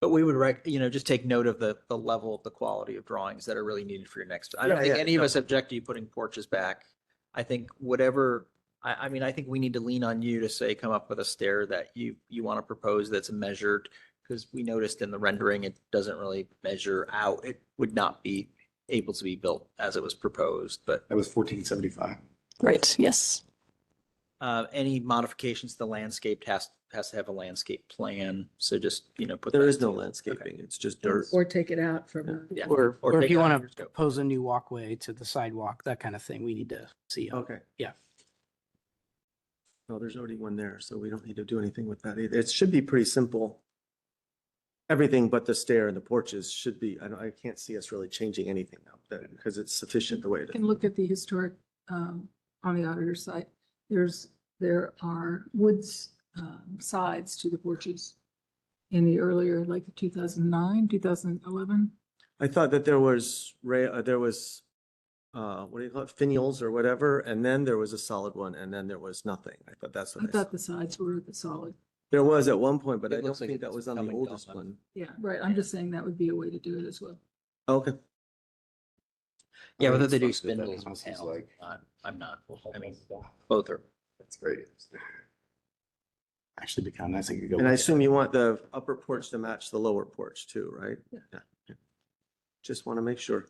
But we would rec, you know, just take note of the, the level of the quality of drawings that are really needed for your next. I don't Yeah, think yeah, any of us object to you putting porches back. I think whatever, I, I mean, I think we need to lean on you to say, come up with a stair that you, you want to propose that's measured. Because we noticed in the rendering, it doesn't really measure out. It would not be able to be built as it was proposed, but That was fourteen seventy-five. Right, yes. uh, any modifications to the landscape has, has to have a landscape plan. So just, you know, put. There that is no together. landscaping, it's just dirt. Or take it out from. Yeah. Or, Or or if take you it out want of your to scope. propose a new walkway to the sidewalk, that kind of thing, we need to see. it. Okay. Yeah. No, there's already one there, so we don't need to do anything with that either. It should be pretty simple. Everything but the stair and the porches should be, I don't, I can't see us really changing anything now, that, because it's sufficient the way it You is. Can look at the historic, um, on the auditor site. There's, there are woods, um, sides to the porches in the earlier, like two thousand nine, two thousand eleven. I thought that there was ra, uh, there was, uh, what do you call it, finials or whatever, and then there was a solid one, and then there was nothing. I thought that's I what I saw. thought the sides were the solid. There was at one point, but It I don't looks like think that it's was on the coming oldest down. one. Yeah, right. I'm just saying that would be a way to do it as well. Okay. Yeah, I mean, whether it's they do supposed to be that spindles or house is panels, like- I'm, I'm not, I mean, both are. That's great. Actually, be kind of nice. if you go And look I at assume it. you want the upper porch to match the lower porch too, right? Yeah. yeah. Just want to make sure.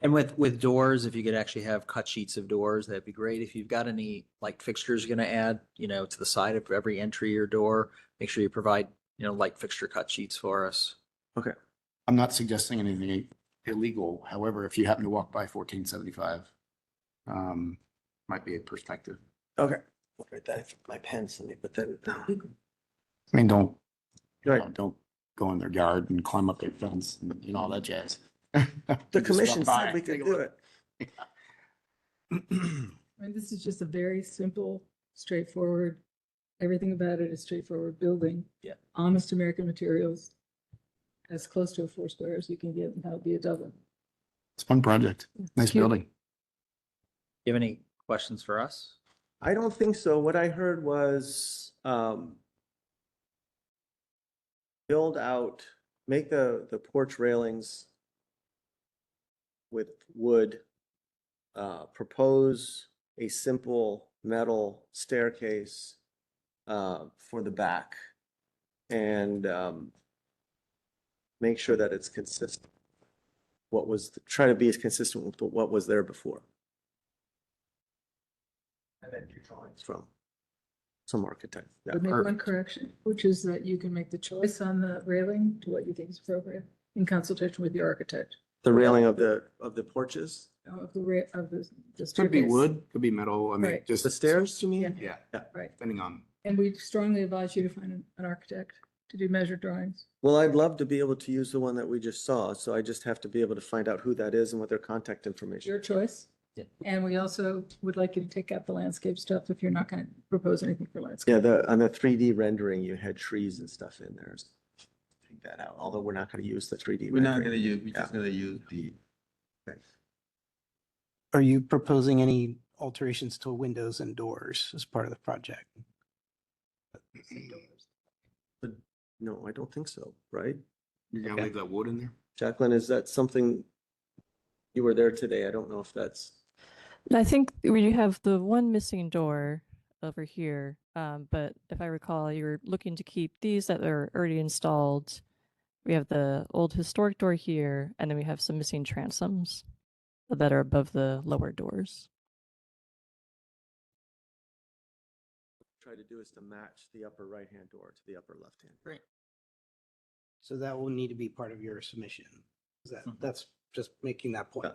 And with, with doors, if you could actually have cut sheets of doors, that'd be great. If you've got any like fixtures you're gonna add, you know, to the side of every entry or door, make sure you provide, you know, light fixture cut sheets for us. I'm not suggesting anything illegal. However, if you happen to walk by fourteen seventy-five, um, might be a perspective. Okay. Write that, my pen's, let me put that down. I mean, don't, Right. don't go in their yard and climb up their fence and you know, all that jazz. The commission said we could do it. it. I mean, this is just a very simple, straightforward, everything about it is straightforward building. Yeah. Honest American materials, as close to a four square as you can get, and that would be a Dublin. It's a fun project. Nice Cute. building. You have any questions for us? I don't think so. What I heard was, um, build out, make the, the porch railings with wood, uh, propose a simple metal staircase, uh, for the back and, um, make sure that it's consistent. What was, try to be as consistent with what was there before from some architect. Yeah. Would make one perfect. correction, which is that you can make the choice on the railing to what you think is appropriate in consultation with the architect The railing of the, of the porches, uh, of the ra- of the. the Could be staircase. wood, could be metal. I mean, Right. just. the stairs, you mean? Yeah, Right, depending on. and we strongly advise you to find an- an architect to do measured drawings. Well, I'd love to be able to use the one that we just saw, so I just have to be able to find out who that is and what their contact information. Your choice. Yeah. And we also would like you to take out the landscape stuff if you're not going to propose anything for landscape. Yeah, the, on the three D rendering, you had trees and stuff in there. so Take that out, although we're not gonna use the three D. We're not gonna use, we're just gonna use the, Are you proposing any alterations to windows and doors as part of the project? No, I don't think so, right? You're gonna leave that wood in there? Jacqueline, is that something? You were there today. I don't know if that's, And I think we have the one missing door over here, um, but if I recall, you were looking to keep these that are already installed. We have the old historic door here, and then we have some missing transoms that are above the lower doors. try to do is to match the upper right-hand door to the upper left-hand. So that will need to be part of your submission. Is That, Mhm. that's just making that point.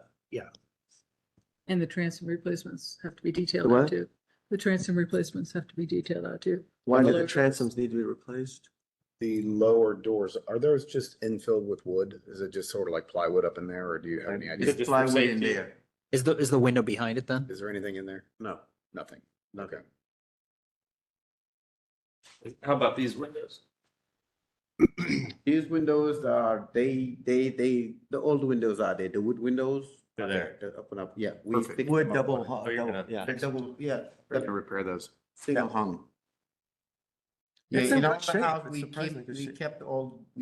And the transom replacements have to be detailed The out what? too. The transom replacements have to be detailed out too. Why do Lower the doors. transoms need to be replaced? The lower doors, are those just infilled with wood? Is it just sort of like plywood up in there or do you have any idea? it's plywood in there. Is the, is the window behind it then? Is there anything in there? No. Nothing. Okay. How about these windows? These windows are, they, they, they, the old windows are there, the wood windows. They're are there. They're up and up, yeah. we Perfect. fix Wood them up. Oh, double, hu- you're double, gonna yeah. They're double, yeah, We're gonna repair those. single hung. Yeah, It's in in our good shape. house, It's we surprisingly keep, good we shape. kept all